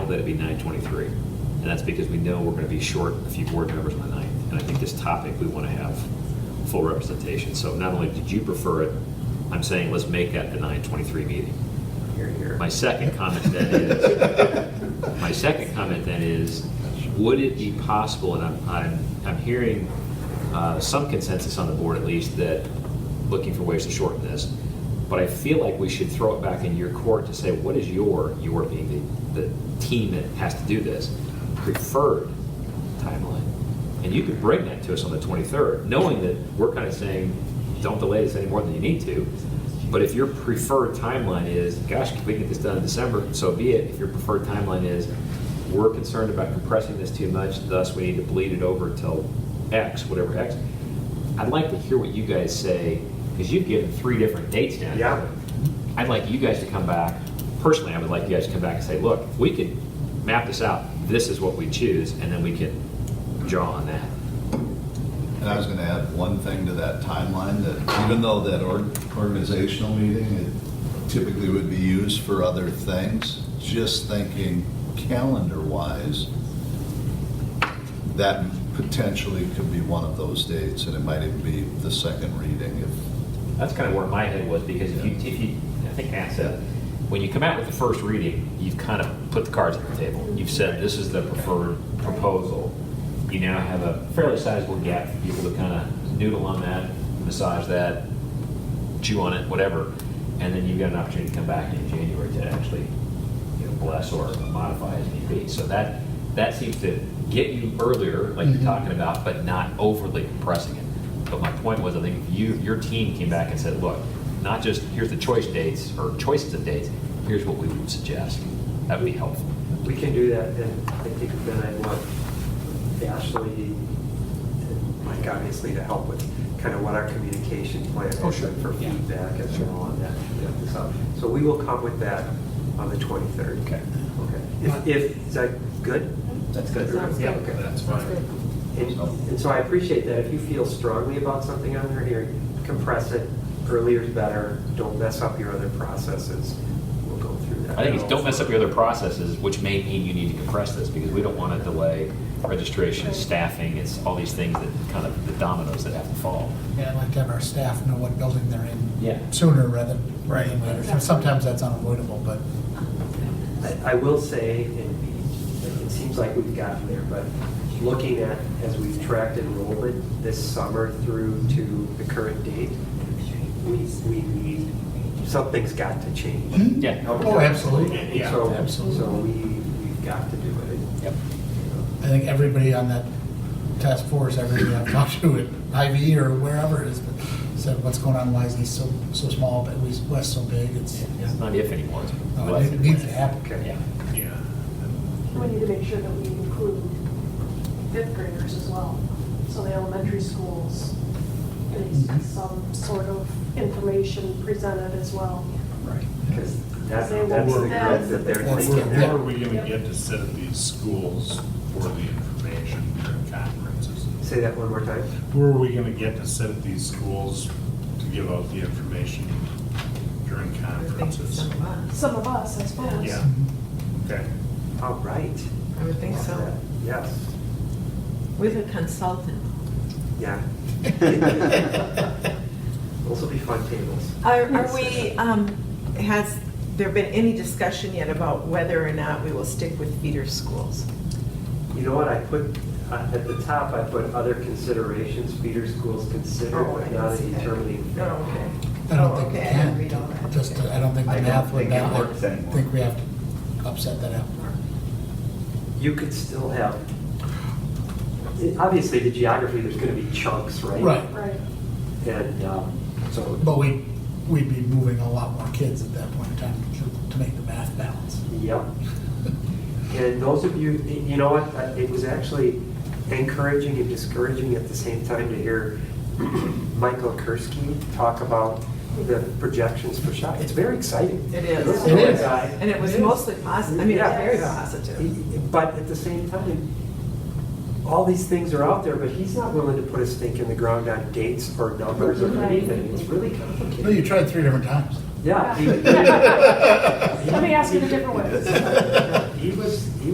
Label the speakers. Speaker 1: that'd be nine twenty-three. And that's because we know we're gonna be short a few board members on the ninth. And I think this topic, we wanna have full representation. So not only did you prefer it, I'm saying let's make that the nine twenty-three meeting.
Speaker 2: Here, here.
Speaker 1: My second comment then is, my second comment then is, would it be possible, and I'm, I'm, I'm hearing uh, some consensus on the board at least, that looking for ways to shorten this, but I feel like we should throw it back in your court to say, what is your, your being the, the team that has to do this, preferred timeline? And you could bring that to us on the 23rd, knowing that we're kind of saying, don't delay this any more than you need to. But if your preferred timeline is, gosh, if we get this done in December, so be it. If your preferred timeline is, we're concerned about compressing this too much, thus we need to bleed it over till X, whatever X. I'd like to hear what you guys say, because you've given three different dates now.
Speaker 2: Yeah.
Speaker 1: I'd like you guys to come back, personally, I would like you guys to come back and say, look, if we could map this out, this is what we choose, and then we can draw on that.
Speaker 3: And I was gonna add one thing to that timeline, that even though that org- organizational meeting it typically would be used for other things, just thinking calendar-wise, that potentially could be one of those dates, and it might even be the second reading if,
Speaker 1: That's kind of where my head was, because if you, if you, I think Matt said, when you come out with the first reading, you've kind of put the cards on the table. You've said, this is the preferred proposal. You now have a fairly sizable gap for people to kind of noodle on that, massage that, chew on it, whatever. And then you've got an opportunity to come back in January to actually, you know, bless or modify as need be. So that, that seems to get you earlier, like
Speaker 4: Mm-hmm.
Speaker 1: you're talking about, but not overly compressing it. But my point was, I think if you, your team came back and said, look, not just, here's the choice dates, or choices of dates, here's what we would suggest. That would be helpful.
Speaker 2: We can do that, and I think then I want Ashley and Mike obviously to help with kind of what our communication plan is
Speaker 1: Oh, sure.
Speaker 2: and for
Speaker 1: Yeah.
Speaker 2: feedback and
Speaker 1: Sure.
Speaker 2: all on that. So- So we will come with that on the 23rd.
Speaker 1: Okay.
Speaker 2: Okay. If, if, is that good?
Speaker 5: That's
Speaker 2: good.
Speaker 5: Sounds
Speaker 2: Yeah,
Speaker 5: good.
Speaker 2: okay, that's
Speaker 5: Sounds
Speaker 2: fine.
Speaker 5: good.
Speaker 2: And and so I appreciate that. If you feel strongly about something on there, here, compress it, earlier is better, don't mess up your other processes. We'll go through that.
Speaker 1: I think it's don't mess up your other processes, which may mean you need to compress this, because we don't want to delay registration,
Speaker 5: Right.
Speaker 1: staffing, it's all these things that kind of, the dominoes that have to fall.
Speaker 4: Yeah, I'd like to have our staff know what building they're
Speaker 1: Yeah.
Speaker 4: in sooner rather than rather than later. So Sometimes that's unavoidable, but
Speaker 2: I I will say, and it seems like we've gotten there, but looking at, as we've tracked enrollment this summer through to the current date, we, we need, something's got to change.
Speaker 1: Yeah.
Speaker 4: Oh, absolutely.
Speaker 2: And so-
Speaker 4: Absolutely.
Speaker 2: So we, we've got to do it.
Speaker 1: Yep.
Speaker 4: I think everybody on that task force, everybody I've talked to at Ivy or wherever it is, but said, what's going on, why is East so, so small, but West- West so big? It's,
Speaker 1: It's not if anymore. it's
Speaker 4: no,
Speaker 1: when.
Speaker 4: it needs to happen.
Speaker 2: Okay.
Speaker 1: Yeah.
Speaker 6: Yeah.
Speaker 5: We need to make sure that we include fifth graders as well. So the elementary schools, they
Speaker 2: Mm-hmm.
Speaker 5: need some sort of information presented as well.
Speaker 4: Right.
Speaker 2: Because that's,
Speaker 5: They
Speaker 2: that's the
Speaker 6: won't-
Speaker 2: grid that they're
Speaker 4: That's-
Speaker 2: thinking.
Speaker 6: Where are we gonna get to sit at these schools for the information during conferences?
Speaker 2: Say that one more time.
Speaker 6: Where are we gonna get to sit at these schools to give out the information during conferences?
Speaker 5: Some of us, I suppose.
Speaker 6: Yeah,
Speaker 4: Mm-hmm.
Speaker 6: okay.
Speaker 2: All right.
Speaker 7: Oh, I would think so.
Speaker 2: Yes,
Speaker 7: With a consultant.
Speaker 2: yeah. Those will be fun tables.
Speaker 7: Are are we, um, has there been any discussion yet about whether or not we will stick with feeder schools?
Speaker 2: You know what, I put, uh, at the top, I put other considerations, feeder schools considered,
Speaker 7: Oh, I
Speaker 2: but
Speaker 7: didn't
Speaker 2: not a
Speaker 7: see that.
Speaker 2: determining
Speaker 7: Oh,
Speaker 2: factor.
Speaker 7: okay.
Speaker 4: I
Speaker 7: Oh,
Speaker 4: don't think we
Speaker 7: okay, I didn't read all
Speaker 4: can.
Speaker 7: that.
Speaker 4: Just,
Speaker 7: Okay.
Speaker 4: I don't think
Speaker 8: I
Speaker 4: the
Speaker 8: don't
Speaker 4: math would
Speaker 8: think it
Speaker 4: not,
Speaker 8: works
Speaker 4: I
Speaker 8: anymore.
Speaker 4: think we have to upset that apple cart.
Speaker 2: You could still have, obviously, the geography, there's gonna be chunks, right?
Speaker 4: Right.
Speaker 5: Right.
Speaker 2: And, um, so,
Speaker 4: But we, we'd be moving a lot more kids at that point in time to- to make the math balance.
Speaker 2: yep. And those of you, you know what, uh, it was actually encouraging and discouraging at the same time to hear Michael Kursky talk about the projections for shot. It's very exciting.
Speaker 7: It is.
Speaker 2: This
Speaker 4: It
Speaker 2: a
Speaker 4: is.
Speaker 2: guy-
Speaker 7: And it was mostly positive, I mean, it was
Speaker 2: Yeah.
Speaker 7: very positive.
Speaker 2: But at the same time, all these things are out there, but he's not willing to put a stake in the ground on dates or numbers or
Speaker 5: Right.
Speaker 2: anything. It's really
Speaker 4: No, you
Speaker 2: complicated.
Speaker 4: tried three different times.
Speaker 2: Yeah. he-
Speaker 5: Let me ask it a different way.
Speaker 2: he was, he